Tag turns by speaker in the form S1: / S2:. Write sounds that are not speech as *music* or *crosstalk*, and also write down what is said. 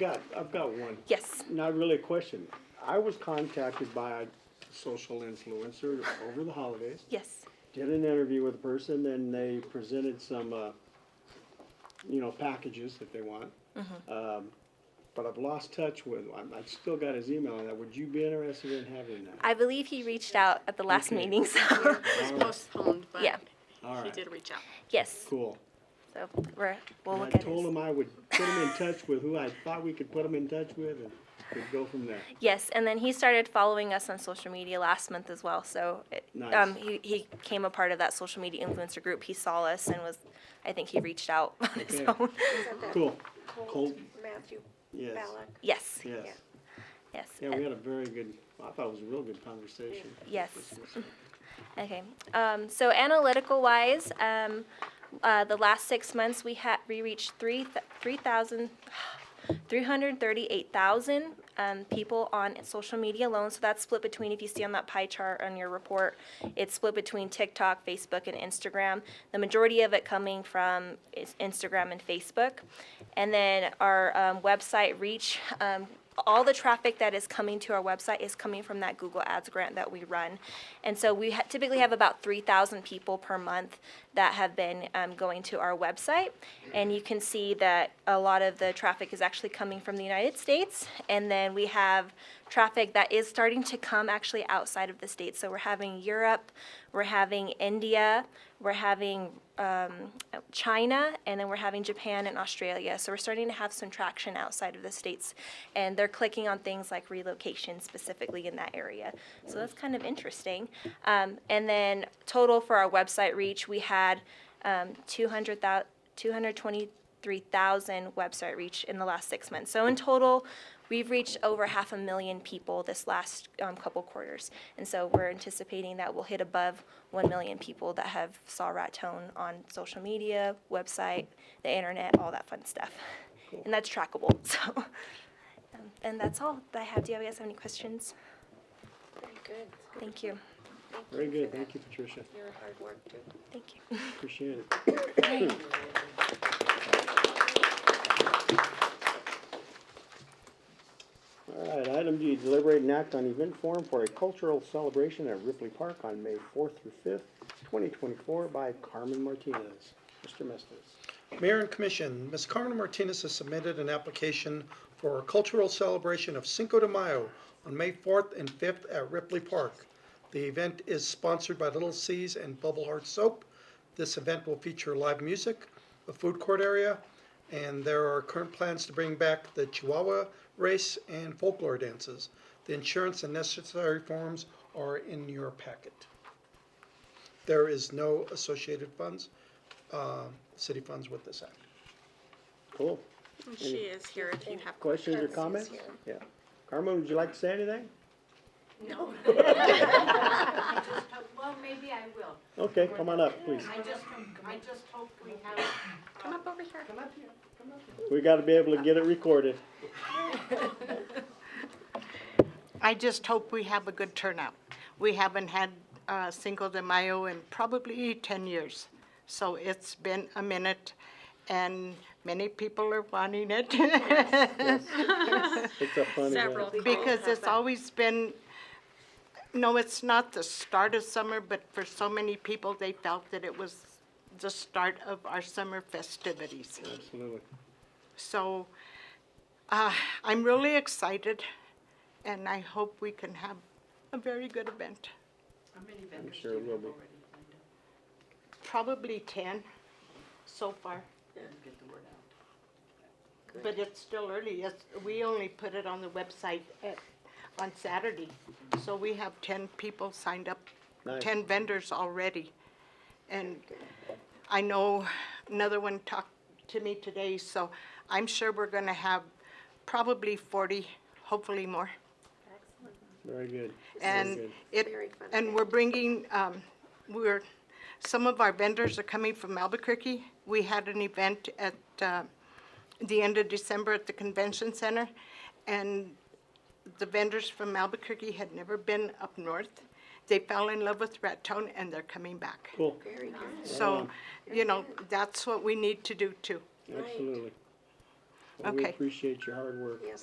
S1: Got, I've got one.
S2: Yes.
S1: Not really a question. I was contacted by a social influencer over the holidays.
S2: Yes.
S1: Did an interview with a person and they presented some, uh, you know, packages that they want.
S2: Mm-hmm.
S1: Um, but I've lost touch with, I'm, I've still got his email on that. Would you be interested in having that?
S2: I believe he reached out at the last
S1: Okay.
S2: meeting, so
S1: All right,
S3: postponed, but
S2: Yeah.
S1: All
S3: he
S1: right,
S3: did reach out.
S2: *laughs* yes.
S1: cool.
S2: So we're we'll
S1: And I
S2: look at
S1: told
S2: it.
S1: him I would put him in touch with who I thought we could put him in touch with and we'd go from there.
S2: Yes, and then he started following us on social media last month as well. So it,
S1: Nice.
S2: um, he he came a part of that social media influencer group. He saw us and was, I think he reached out on his
S1: Okay.
S2: own. *laughs*
S1: Cool.
S4: Colt
S1: Colt,
S4: Matthew
S1: yes,
S4: Ballack.
S2: yes.
S1: yes.
S2: Yes.
S1: Yeah, we had a very good, I thought it was a real good conversation.
S2: Yes. Okay, um, so analytical wise, um, uh, the last six months, we had, we reached three, th- three thousand, *sighs* three hundred thirty-eight thousand, um, people on social media alone, so that's split between, if you see on that pie chart on your report, it's split between TikTok, Facebook, and Instagram. The majority of it coming from is Instagram and Facebook. And then our, um, website reach, um, all the traffic that is coming to our website is coming from that Google Ads grant that we run. And so we ha- typically have about 3,000 people per month that have been um, going to our website. And you can see that a lot of the traffic is actually coming from the United States. And then we have traffic that is starting to come actually outside of the States. So we're having Europe, we're having India, we're having um, China, and then we're having Japan and Australia. So we're starting to have some traction outside of the states, and they're clicking on things like relocation specifically in that area. So that's kind of interesting. Um, and then total for our website reach, we had um, 200,000 223,000 website reach in the last six months. So in total, we've reached over half a million people this last um, couple quarters. And so we're anticipating that we'll hit above 1 million people that have saw Rat Tone on social media, website, the internet, all that fun stuff. And that's trackable, *laughs* so. um, And that's all that I have. Do you guys have any questions?
S4: Very good.
S2: Thank you.
S4: Thank
S1: Very
S4: you
S1: good,
S4: for
S1: thank
S4: that.
S1: you, Patricia,
S4: Your hard work too.
S2: Thank you.
S1: appreciate it. All right, item D, deliberate and act on event form for a cultural celebration at Ripley Park on May fourth through fifth, twenty twenty-four by Carmen Martinez. Mr. Mestes.
S5: Mayor and Commission, Ms. Carmen Martinez has submitted an application for a cultural celebration of Cinco de Mayo on May 4th and 5th at Ripley Park. The event is sponsored by Little C's and Bubble Heart Soap. This event will feature live music, a food court area, and there are current plans to bring back the Chihuahua race and folklore dances. The insurance and necessary forms are in your packet. There is no associated funds, uh, city funds with this act.
S1: Cool.
S3: And She is here if you have
S1: Questions or comments? Yeah. Carmen, would you like to say anything?
S6: Uh, Well, maybe I will.
S1: Okay, come on up, please.
S6: I just, I just hope we have.
S3: Come up over here.
S1: We gotta be able to get it recorded.
S6: I just hope we have a good turnout. We haven't had uh, Cinco de Mayo in probably 10 years. So it's been a minute and many people are wanting it. *laughs*
S1: It's a fun event.
S3: Several.
S6: Because it's always been, no, it's not the start of summer, but for so many people, they felt that it was the start of our summer festivities.
S1: Absolutely.
S6: So uh, I'm really excited, and I hope we can have a very good event.
S1: I'm sure it will be.
S6: Probably 10 so far. But it's still early. It's- We only put it on the website at- on Saturday. So we have 10 people signed up,
S1: Nice.
S6: 10 vendors already. And I know another one talked to me today, so I'm sure we're going to have probably 40, hopefully more.
S1: Very good. Very
S6: And
S1: good.
S6: it,
S4: Very fun
S6: and we're bringing, um, we're, some of our vendors are coming from Albuquerque. We had an event at, uh, the end of December at the Convention Center, and the vendors from Albuquerque had never been up north. They fell in love with Raton, and they're coming back.
S1: Cool,
S4: Very good.
S6: So, you know, that's what we need to do too.
S1: absolutely. And we
S6: Okay.
S1: appreciate your hard work.
S4: Yes.